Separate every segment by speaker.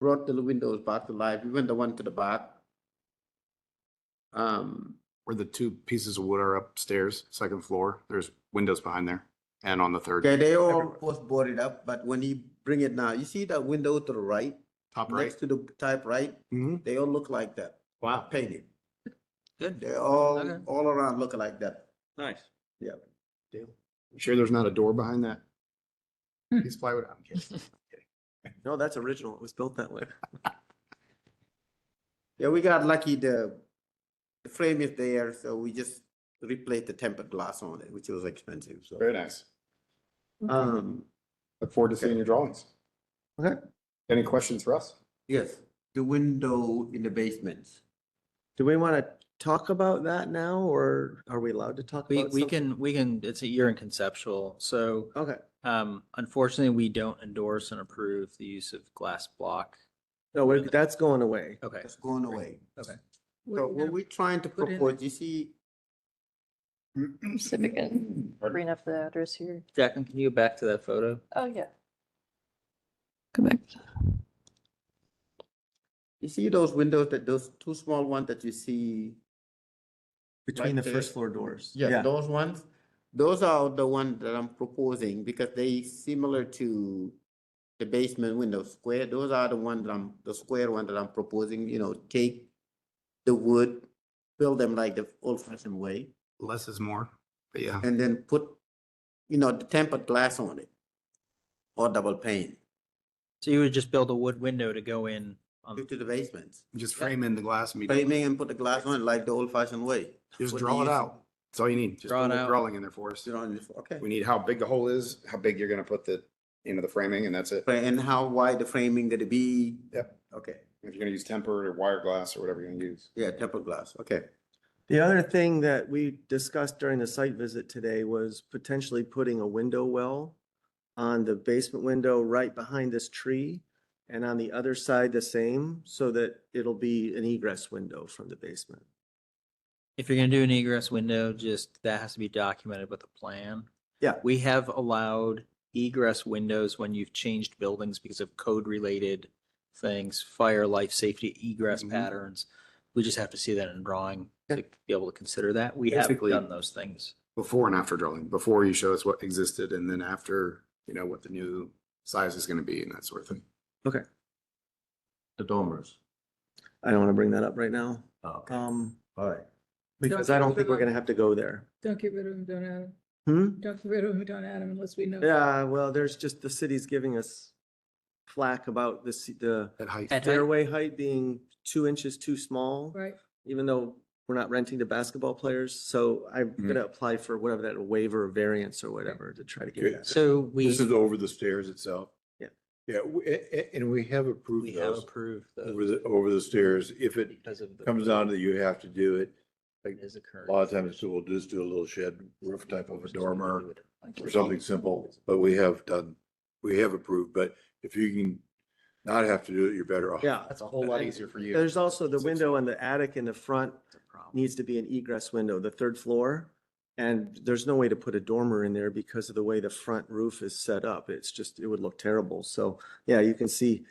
Speaker 1: brought the windows back to life, even the one to the back. Um,
Speaker 2: Where the two pieces of wood are upstairs, second floor, there's windows behind there and on the third,
Speaker 1: okay, they all was boarded up, but when you bring it now, you see that window to the right,
Speaker 2: top right.
Speaker 1: next to the type right,
Speaker 2: Mhm.
Speaker 1: they all look like that,
Speaker 3: Wow.
Speaker 1: painted.
Speaker 3: Good.
Speaker 1: They all,
Speaker 3: Okay.
Speaker 1: all around look like that.
Speaker 3: Nice.
Speaker 2: You Sure, there's not a door behind that? Piece of plywood, I'm kidding.
Speaker 3: No, that's original. It was built that way.
Speaker 1: Yeah, we got lucky, the, the frame is there, so we just replaced the tempered glass on it, which was expensive, so.
Speaker 2: Very nice.
Speaker 1: Um,
Speaker 2: Look forward to seeing your drawings.
Speaker 1: Okay.
Speaker 2: Any questions for us?
Speaker 1: yes, the window in the basement. Do we want to talk about that now, or are we allowed to talk
Speaker 4: We,
Speaker 1: about
Speaker 4: we
Speaker 1: something?
Speaker 4: can, we can, it's a year in conceptual. So
Speaker 1: Okay,
Speaker 4: um, unfortunately, we don't endorse and approve the use of glass block.
Speaker 5: No, we're- that's going away.
Speaker 4: Okay.
Speaker 1: it's going away.
Speaker 4: Okay.
Speaker 1: So what we're trying to
Speaker 4: put in
Speaker 1: propose, you see,
Speaker 6: Civic and bring up the address here.
Speaker 4: Jacqueline, can you go back to that photo?
Speaker 6: Oh, yeah. Go back.
Speaker 1: you see those windows that, those two small ones that you see?
Speaker 5: Between the
Speaker 1: Right there.
Speaker 5: first floor doors.
Speaker 1: Yeah, those ones, those are the ones that I'm proposing because they similar to the basement window square. Those are the ones that I'm, the square one that I'm proposing, you know, take the wood, build them like the old fashioned way,
Speaker 2: Less is more, but yeah.
Speaker 1: and then put, you know, the tempered glass on it. Or double pane
Speaker 4: So you would just build a wood window to go in
Speaker 2: Um,
Speaker 4: um, on,
Speaker 1: to the basement.
Speaker 2: Just frame in the glass and be. done.
Speaker 1: Framing and put the glass on it like the old fashioned way.
Speaker 2: Just
Speaker 1: What
Speaker 2: draw it
Speaker 1: these-
Speaker 2: out. That's all you need. Just
Speaker 4: Draw
Speaker 2: put
Speaker 4: it
Speaker 2: a little
Speaker 4: out.
Speaker 2: Drawing in there for us.
Speaker 1: You know, and it's- okay.
Speaker 2: We need how big the hole is, how big you're gonna put the, into the framing and that's it.
Speaker 1: And how wide the framing gonna be?
Speaker 2: Yep.
Speaker 1: Okay,
Speaker 2: If you're gonna use tempered or wire glass or whatever you're gonna use.
Speaker 1: yeah, tempered glass, okay.
Speaker 5: The other thing that we discussed during the site visit today was potentially putting a window well on the basement window right behind this tree and on the other side the same, so that it'll be an egress window from the basement.
Speaker 4: if you're going to do an egress window, just that has to be documented with a plan.
Speaker 5: Yeah.
Speaker 4: We have allowed egress windows when you've changed buildings because of code related things, fire, life, safety, egress
Speaker 2: Mhm.
Speaker 4: patterns. We just have to see that in drawing to be able to consider that. We have
Speaker 2: Basically-
Speaker 4: done those things.
Speaker 2: Before and after drawing, before you show us what existed and then after, you know, what the new size is gonna be and that sort of thing.
Speaker 1: The dormers.
Speaker 5: I don't want to bring that up right now,
Speaker 1: Okay,
Speaker 5: um,
Speaker 1: all right.
Speaker 5: because I don't think we're gonna have to go there.
Speaker 7: Don't get rid of him, don't add him.
Speaker 5: Hmm?
Speaker 7: Don't get rid of him, don't add him unless we know.
Speaker 5: Yeah, well, there's just, the city's giving us flack about the, c- the
Speaker 2: At height.
Speaker 4: At height.
Speaker 5: fairway height being two inches too small.
Speaker 7: Right,
Speaker 5: even though we're not renting to basketball players, so I'm
Speaker 2: Mm-hmm.
Speaker 5: gonna apply for whatever that waiver or variance or whatever to try to get that.
Speaker 4: So we.
Speaker 8: This is over the stairs itself?
Speaker 5: Yeah.
Speaker 8: Yeah, we- a- a- and we have
Speaker 4: We
Speaker 8: approved
Speaker 4: have
Speaker 8: those
Speaker 4: approved
Speaker 8: over
Speaker 4: those
Speaker 8: the, over the stairs. If it
Speaker 4: because of. the-
Speaker 8: comes down that you have to do it,
Speaker 4: it is occurring.
Speaker 8: a lot of times we'll just do a little shed roof type of a dormer or something simple, but we have done, we have approved, but if you can not have to do it, you're better off.
Speaker 5: Yeah,
Speaker 2: That's a whole lot easier for you.
Speaker 5: there's also the
Speaker 2: Six
Speaker 5: window in the attic in the front
Speaker 4: It's a problem.
Speaker 5: needs to be an egress window, the third floor. And there's no way to put a dormer in there because of the way the front roof is set up. It's just, it would look terrible. So, yeah, you can see,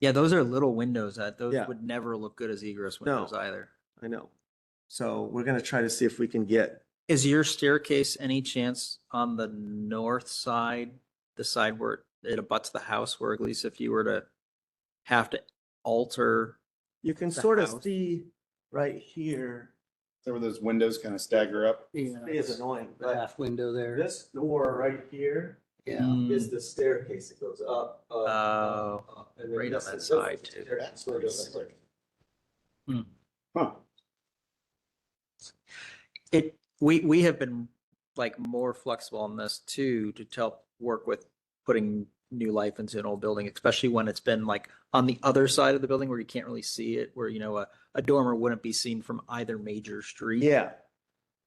Speaker 4: Yeah, those are little windows that those
Speaker 5: Yeah.
Speaker 4: would never look good as egress
Speaker 5: No.
Speaker 4: windows either.
Speaker 5: I know. So we're gonna try to see if we can get,
Speaker 4: Is your staircase any chance on the north side, the side where it abuts the house, where at least if you were to have to alter?
Speaker 5: you can
Speaker 4: The
Speaker 5: sort of
Speaker 4: house.
Speaker 5: see right here.
Speaker 2: Some of those windows kind of stagger up.
Speaker 5: It is annoying, but. Half window there. This door right here
Speaker 4: Yeah.
Speaker 5: is the staircase that goes up. up,
Speaker 4: Uh,
Speaker 5: up, up, and then
Speaker 4: right on
Speaker 5: this
Speaker 4: that
Speaker 5: is-
Speaker 4: side,
Speaker 5: this is
Speaker 4: too.
Speaker 5: the staircase that goes up.
Speaker 2: Huh.
Speaker 4: It, we, we have been like more flexible on this too, to help work with putting new life into an old building, especially when it's been like on the other side of the building where you can't really see it, where, you know, a, a dormer wouldn't be seen from either major street.
Speaker 5: Yeah,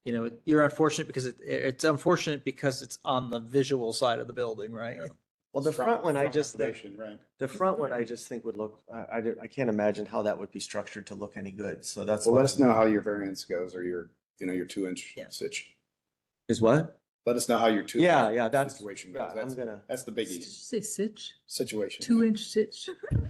Speaker 4: You know, you're unfortunate because it, it's unfortunate because it's on the visual side of the building, right?
Speaker 5: well, the front one, I just, think-
Speaker 2: elevation, Right.
Speaker 5: the front one, I just think would look, I, I don't- I can't imagine how that would be structured to look any good, so that's.
Speaker 2: Well,
Speaker 5: why-
Speaker 2: let us know how your variance goes or your, you know, your two inch
Speaker 4: Yeah.
Speaker 2: stitch.
Speaker 5: Is what?
Speaker 2: Let us know how your two.
Speaker 5: Yeah, yeah, that's,
Speaker 2: Situation
Speaker 5: yeah,
Speaker 2: goes.
Speaker 5: I'm
Speaker 2: That's,
Speaker 5: gonna.
Speaker 2: that's the
Speaker 7: Did you
Speaker 2: biggie
Speaker 7: say sitch,
Speaker 2: situation.
Speaker 7: two inch sitch.